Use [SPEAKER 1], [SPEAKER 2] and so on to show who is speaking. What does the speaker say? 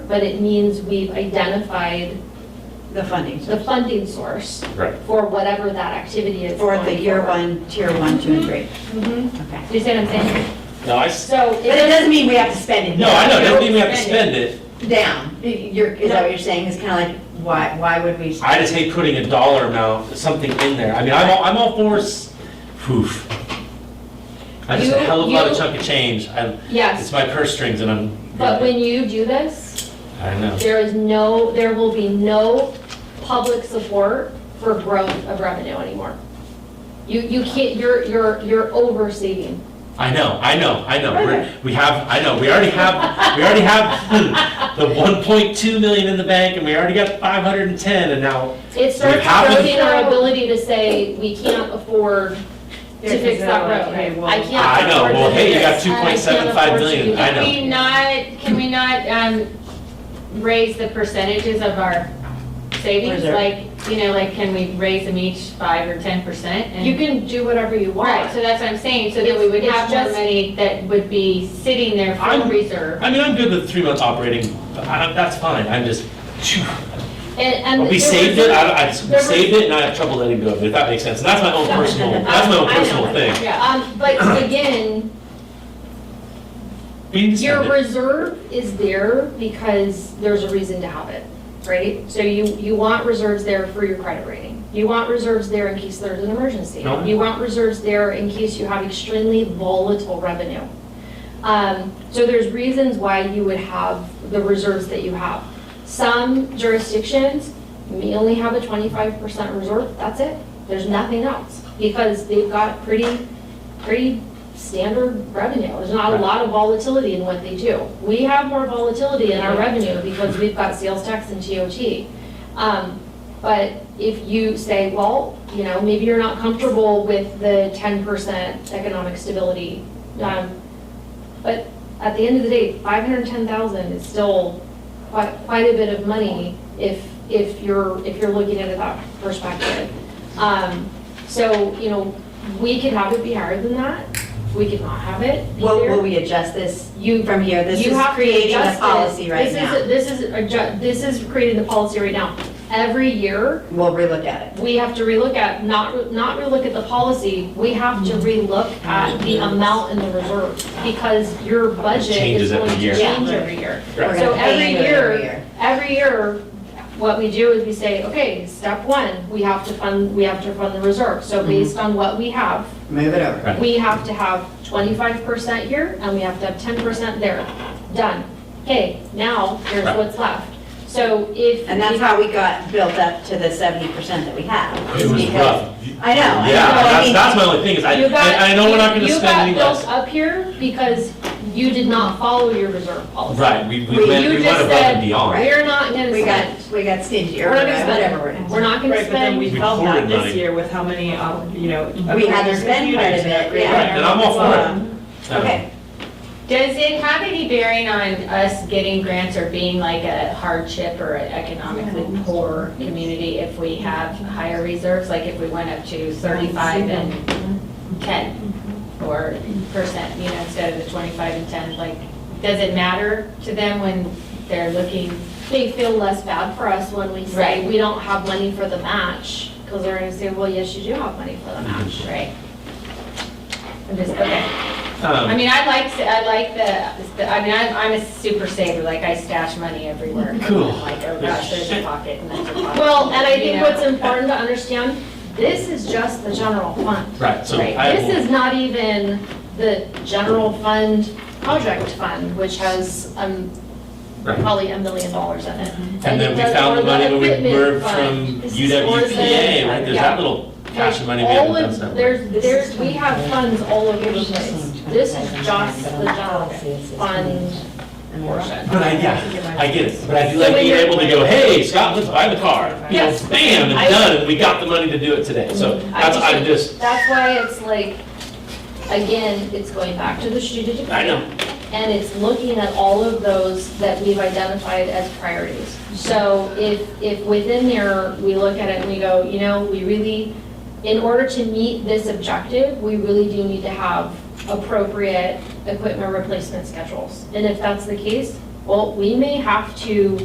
[SPEAKER 1] but it means we've identified
[SPEAKER 2] The funding
[SPEAKER 1] the funding source
[SPEAKER 3] Right.
[SPEAKER 1] for whatever that activity is.
[SPEAKER 2] for the
[SPEAKER 1] going
[SPEAKER 2] year
[SPEAKER 1] forward.
[SPEAKER 2] one, tier one, two, and three.
[SPEAKER 1] Mhm.
[SPEAKER 2] Okay.
[SPEAKER 1] Do you see what I'm saying?
[SPEAKER 3] No, I, s-
[SPEAKER 1] So.
[SPEAKER 2] But it doesn't mean we have to spend it.
[SPEAKER 3] no, I know, that doesn't mean we have to spend it.
[SPEAKER 2] Down, you're, is that what you're saying, it's kind of like, why, why would we?
[SPEAKER 3] I just hate putting a dollar amount, something in there. I mean, I'm all, I'm all for, s- poof. I just a
[SPEAKER 1] You-
[SPEAKER 3] hell of a lot of
[SPEAKER 1] you-
[SPEAKER 3] chunk of change. I'm, it's
[SPEAKER 1] Yes,
[SPEAKER 3] my purse strings and I'm.
[SPEAKER 1] but when you do this,
[SPEAKER 3] I know.
[SPEAKER 1] there is no, there will be no public support for growth of revenue anymore. You, you can't, you're, you're, you're overseeing.
[SPEAKER 3] I know, I know, I know. We're, we have, I know, we already have, we already have the 1.2 million in the bank and we already got 510 and now,
[SPEAKER 1] It starts
[SPEAKER 3] have to-
[SPEAKER 1] eroding our ability to say, we can't afford to
[SPEAKER 2] There's
[SPEAKER 1] fix that
[SPEAKER 2] no,
[SPEAKER 1] road.
[SPEAKER 2] uh, okay, well-
[SPEAKER 1] I can't.
[SPEAKER 3] I know,
[SPEAKER 1] afford to
[SPEAKER 3] well, hey,
[SPEAKER 1] do
[SPEAKER 3] you got
[SPEAKER 1] this.
[SPEAKER 3] 2.75 million, I know.
[SPEAKER 4] Can we not, can we not, um, raise the percentages of our savings?
[SPEAKER 2] Reserve.
[SPEAKER 4] Like, you know, like, can we raise them each five or ten percent?
[SPEAKER 1] You can do whatever you
[SPEAKER 4] Right,
[SPEAKER 1] want.
[SPEAKER 4] so that's what I'm saying, so that we would
[SPEAKER 1] It's-
[SPEAKER 4] have
[SPEAKER 1] it's
[SPEAKER 4] more
[SPEAKER 1] just-
[SPEAKER 4] money that would be sitting there
[SPEAKER 3] I'm-
[SPEAKER 4] for reserve.
[SPEAKER 3] I mean, I'm good with three months operating. I- I- That's fine, I'm just, phew.
[SPEAKER 1] And, and.
[SPEAKER 3] But we
[SPEAKER 1] there
[SPEAKER 3] saved
[SPEAKER 1] was-
[SPEAKER 3] it, I, I we
[SPEAKER 1] there was-
[SPEAKER 3] saved it and I have trouble letting go of it, if that makes sense. And that's my own personal, that's my own
[SPEAKER 1] I know.
[SPEAKER 3] personal thing.
[SPEAKER 4] Yeah.
[SPEAKER 1] Um, but again,
[SPEAKER 3] We didn't spend
[SPEAKER 1] Your
[SPEAKER 3] it.
[SPEAKER 1] reserve is there because there's a reason to have it, right? So you, you want reserves there for your credit rating. You want reserves there in case there's an emergency.
[SPEAKER 3] No.
[SPEAKER 1] You want reserves there in case you have extremely volatile revenue. Um, So there's reasons why you would have the reserves that you have. Some jurisdictions may only have a 25% reserve, that's it. There's nothing else because they've got pretty, pretty standard revenue. There's not a lot of volatility in what they do. We have more volatility in our revenue because we've got sales tax and TOT. Um, But if you say, well, you know, maybe you're not comfortable with the 10% economic stability, um, but at the end of the day, 510,000 is still quite, quite a bit of money if, if you're, if you're looking at it that perspective. Um, So, you know, we could have it be higher than that, we could not have it be
[SPEAKER 2] Will,
[SPEAKER 1] there.
[SPEAKER 2] will we adjust this
[SPEAKER 1] You,
[SPEAKER 2] from here? This
[SPEAKER 1] you
[SPEAKER 2] is
[SPEAKER 1] have to
[SPEAKER 2] creating a
[SPEAKER 1] adjust it.
[SPEAKER 2] policy right now.
[SPEAKER 1] This is, this is, adju- this is creating the policy right now. Every year,
[SPEAKER 2] We'll relook at it.
[SPEAKER 1] we have to relook at, not, re- not relook at the policy, we have to
[SPEAKER 3] Mm-hmm.
[SPEAKER 1] relook at the amount in the reserve, because your budget is
[SPEAKER 3] Changes every
[SPEAKER 1] going to
[SPEAKER 3] year.
[SPEAKER 1] change every year.
[SPEAKER 2] We're gonna
[SPEAKER 1] So
[SPEAKER 2] pay
[SPEAKER 1] every
[SPEAKER 2] into it
[SPEAKER 1] year- Every year, what we do is we say, okay, step one, we have to fund, we have to fund the reserve. So based on what we have,
[SPEAKER 2] Move it over.
[SPEAKER 3] Mm-hmm. Right.
[SPEAKER 1] we have to have twenty-five percent here, and we have to have ten percent there. Done. Okay, now, here's
[SPEAKER 3] Right.
[SPEAKER 1] what's left. So if.
[SPEAKER 2] And that's how we got built up to the seventy percent that we have.
[SPEAKER 3] It
[SPEAKER 2] is
[SPEAKER 3] was
[SPEAKER 2] because-
[SPEAKER 3] rough.
[SPEAKER 2] I know, I know.
[SPEAKER 3] Yeah,
[SPEAKER 2] I
[SPEAKER 3] that's,
[SPEAKER 2] mean,
[SPEAKER 3] that's my only thing is I,
[SPEAKER 1] Oh, You got-
[SPEAKER 3] I I know we're not gonna
[SPEAKER 1] you-
[SPEAKER 3] spend any
[SPEAKER 1] You
[SPEAKER 3] less.
[SPEAKER 1] got built up here because you did not follow your reserve policy.
[SPEAKER 3] Right, we, we
[SPEAKER 2] We-
[SPEAKER 3] went,
[SPEAKER 1] you
[SPEAKER 3] we
[SPEAKER 1] just
[SPEAKER 3] went above and
[SPEAKER 1] said-
[SPEAKER 3] beyond.
[SPEAKER 1] We're not gonna
[SPEAKER 2] We
[SPEAKER 1] spend,
[SPEAKER 2] got, we got stingy or
[SPEAKER 1] We're not gonna spend.
[SPEAKER 2] whatever we're in.
[SPEAKER 1] we're not gonna
[SPEAKER 5] Right, but then
[SPEAKER 1] spend.
[SPEAKER 5] we
[SPEAKER 3] We
[SPEAKER 5] felt that
[SPEAKER 3] hoarded money.
[SPEAKER 5] this year with how many, um, you know.
[SPEAKER 2] We had to spend quite a bit, yeah.
[SPEAKER 3] Right, and I'm all for it.
[SPEAKER 2] Okay,
[SPEAKER 4] Does it have any bearing on us getting grants or being like a hardship or an economically poor community if we have higher reserves? Like if we went up to thirty-five and ten or percent, you know, instead of the twenty-five and ten? Like, does it matter to them when they're looking?
[SPEAKER 1] They feel less bad for us when we say,
[SPEAKER 4] Right.
[SPEAKER 1] we don't have money for the match, because they're gonna say, well, yes, you do have money for the
[SPEAKER 3] Mm-hmm.
[SPEAKER 1] match.
[SPEAKER 4] Right. I'm just, okay. I
[SPEAKER 3] Um,
[SPEAKER 4] mean, I like, I like the- the, I mean, I'm, I'm a super saver, like I stash money everywhere.
[SPEAKER 3] Cool.
[SPEAKER 4] I'm Like, oh gosh, there's a pocket and that's a pocket.
[SPEAKER 1] Well, and I
[SPEAKER 4] You
[SPEAKER 1] think
[SPEAKER 4] know?
[SPEAKER 1] what's important to understand, this is just the general fund.
[SPEAKER 3] Right, so
[SPEAKER 4] Right,
[SPEAKER 3] I
[SPEAKER 1] This
[SPEAKER 3] will,
[SPEAKER 1] is not even the general fund, project fund, which has um,
[SPEAKER 3] Right.
[SPEAKER 1] probably a million dollars in it.
[SPEAKER 3] and then we found the money when we merged from
[SPEAKER 1] This is
[SPEAKER 3] UWPA, right? There's
[SPEAKER 1] yeah.
[SPEAKER 3] that little cash of money we
[SPEAKER 1] Like, all
[SPEAKER 3] haven't done
[SPEAKER 1] of-
[SPEAKER 3] stuff with.
[SPEAKER 1] There's, there's, we have funds all over the place. This is just the general fund portion.
[SPEAKER 3] But I, yeah, I get it, but I do like
[SPEAKER 1] So when
[SPEAKER 3] being
[SPEAKER 1] you're-
[SPEAKER 3] able to go, hey, Scott, let's buy the car. You know,
[SPEAKER 1] Yes.
[SPEAKER 3] bam, and
[SPEAKER 1] I- Mm-hmm.
[SPEAKER 3] done, and we got the money to do it today, so that's,
[SPEAKER 1] I
[SPEAKER 3] I'm just,
[SPEAKER 1] That's why it's like, again, it's going back to the strategic.
[SPEAKER 3] I know.
[SPEAKER 1] And it's looking at all of those that we've identified as priorities. So if, if within there, we look at it and we go, you know, we really, in order to meet this objective, we really do need to have appropriate equipment replacement schedules. And if that's the case, well, we may have to